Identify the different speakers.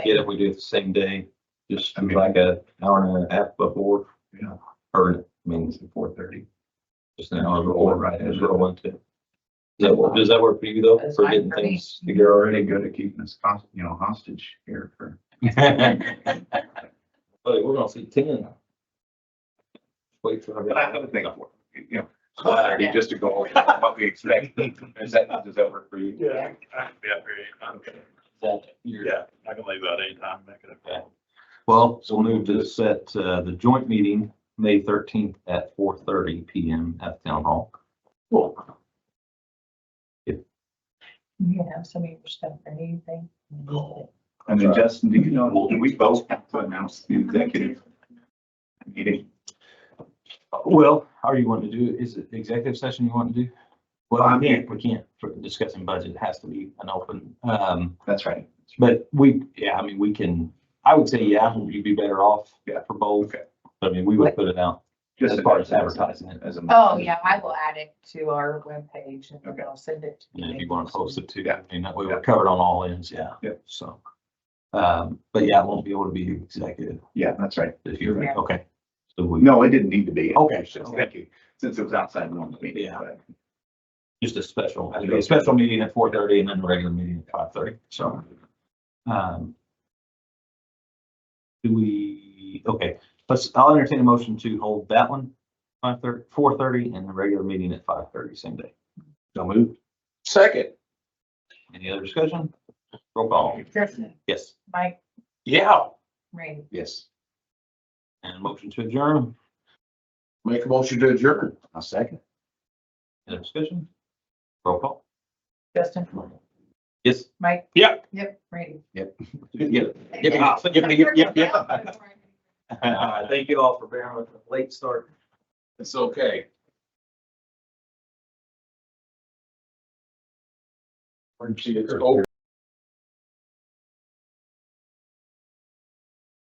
Speaker 1: get it, we do it the same day, just
Speaker 2: I mean-
Speaker 1: like a hour and a half before.
Speaker 2: Yeah.
Speaker 1: Or, I mean,
Speaker 2: four thirty.
Speaker 1: just an hour before,
Speaker 2: Right.
Speaker 1: right, as well, one too. Does that work, does that work for you though,
Speaker 3: That's
Speaker 1: for
Speaker 3: fine
Speaker 1: getting
Speaker 3: for me.
Speaker 1: things
Speaker 2: You're already good at keeping us, cost- you know, hostage here for.
Speaker 1: together? Buddy, we're gonna see ten. Wait for.
Speaker 2: But I have a thing for, it, you know,
Speaker 1: Uh,
Speaker 3: yeah.
Speaker 2: just to go over what we expect. Is that, does that work for you?
Speaker 3: Yeah.
Speaker 4: I can be up here anytime.
Speaker 1: You're-
Speaker 4: Yeah, I can leave out anytime, make it a
Speaker 1: Okay.
Speaker 4: call.
Speaker 1: Well, so we'll move to set uh, the joint meeting, May thirteenth at four thirty PM at Town Hall.
Speaker 3: You have some of your stuff or anything?
Speaker 2: And then Justin, do you know, do we both have to announce the executive meeting?
Speaker 1: Well, how are you wanting to do, it? is it the executive session you want to do? Well,
Speaker 2: I'm-
Speaker 1: we can't, we can't, for discussing budget, it has to be an open, um,
Speaker 2: That's right.
Speaker 1: but we, yeah, I mean, we can, I would say, yeah, you'd be better off
Speaker 2: Yeah.
Speaker 1: for both.
Speaker 2: Okay.
Speaker 1: I mean, we would put it out
Speaker 2: Just
Speaker 1: as far as advertising it,
Speaker 2: As a.
Speaker 3: Oh, yeah, I will add it to our webpage and then
Speaker 2: Okay.
Speaker 3: I'll send it. to
Speaker 1: and if
Speaker 3: you.
Speaker 1: you want to post it too,
Speaker 2: Yeah.
Speaker 1: I mean, that way we're
Speaker 2: Yeah.
Speaker 1: covered on all ends, yeah.
Speaker 2: Yeah.
Speaker 1: So, um, but yeah, I won't be able to be executive.
Speaker 2: Yeah, that's right.
Speaker 1: If you're
Speaker 3: Yeah.
Speaker 1: okay. So we,
Speaker 2: No, it didn't need to be.
Speaker 1: Okay.
Speaker 2: It's just- Thank you. Since it was outside the normal meeting.
Speaker 1: Yeah.
Speaker 2: but-
Speaker 1: just a special, a special meeting at four thirty and then a regular meeting at five thirty, so. um, Do we, okay, let's, I'll entertain a motion to hold that one, five thirty, four thirty and the regular meeting at five thirty, same day. So moved.
Speaker 5: Second.
Speaker 1: Any other discussion? Roll call.
Speaker 3: Justin,
Speaker 1: Yes.
Speaker 3: Mike,
Speaker 5: Yeah.
Speaker 3: Randy,
Speaker 5: Yes.
Speaker 1: And motion to adjourn.
Speaker 5: Make a motion to adjourn. A second.
Speaker 1: Any other discussion? Roll call.
Speaker 3: Justin,
Speaker 1: Yes.
Speaker 3: Mike.
Speaker 5: Yep.
Speaker 3: Yep, Randy.
Speaker 1: Yeah.
Speaker 5: Yeah. Yep, yep, yep, yep.
Speaker 1: Uh, Thank you all for bearing with the late start.
Speaker 5: It's okay. It's over.